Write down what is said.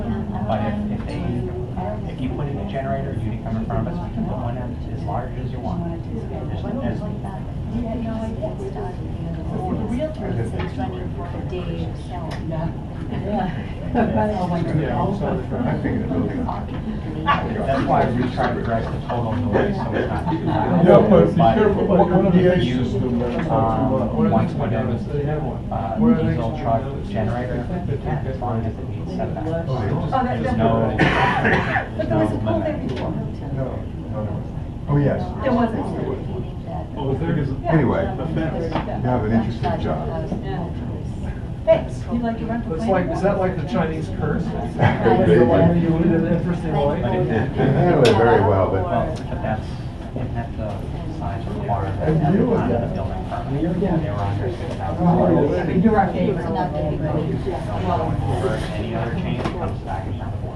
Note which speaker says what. Speaker 1: But if, if they, if you put in a generator, you can come in front of us, we can put one in as large as you want. There's, there's,
Speaker 2: Realtor is running for a day of sale.
Speaker 3: Oh, my God.
Speaker 4: I think the building.
Speaker 1: that's why we try to drive the total noise, so it's not too loud.
Speaker 5: Yeah, but be
Speaker 1: But
Speaker 5: careful
Speaker 1: what
Speaker 5: what kind of
Speaker 1: you
Speaker 5: DA
Speaker 1: use,
Speaker 5: system they're talking
Speaker 1: um,
Speaker 5: about.
Speaker 1: once one of those,
Speaker 5: They have one.
Speaker 1: uh,
Speaker 5: Where are they
Speaker 1: diesel
Speaker 5: getting
Speaker 1: truck
Speaker 5: those?
Speaker 1: generator,
Speaker 5: I think they
Speaker 1: yeah,
Speaker 5: take
Speaker 1: as
Speaker 5: that
Speaker 1: long
Speaker 5: one.
Speaker 1: as it meets setback.
Speaker 5: Oh,
Speaker 3: that-
Speaker 1: There's no, there's
Speaker 3: But there was a
Speaker 1: no
Speaker 3: pool there
Speaker 1: limit.
Speaker 3: before.
Speaker 4: No, no, no. Oh, yes.
Speaker 3: There
Speaker 4: yes.
Speaker 3: wasn't.
Speaker 5: Well, the thing is,
Speaker 4: Anyway,
Speaker 2: The fence.
Speaker 4: you have an interesting job.
Speaker 3: Thanks, you like to run for
Speaker 6: That's
Speaker 3: planning
Speaker 6: like,
Speaker 3: board?
Speaker 6: is that like the Chinese curse?
Speaker 4: They
Speaker 6: The one
Speaker 4: went-
Speaker 6: you lead an interesting life?
Speaker 1: But it-
Speaker 4: They handle it very
Speaker 1: Well,
Speaker 4: well, but
Speaker 1: but that's, and that's the size required
Speaker 5: And
Speaker 1: at the
Speaker 5: you were
Speaker 1: time of the
Speaker 5: there.
Speaker 1: building permit. They were under six thousand
Speaker 5: Oh,
Speaker 1: dollars.
Speaker 5: yeah.
Speaker 3: You're our favorite.
Speaker 1: Any other change comes back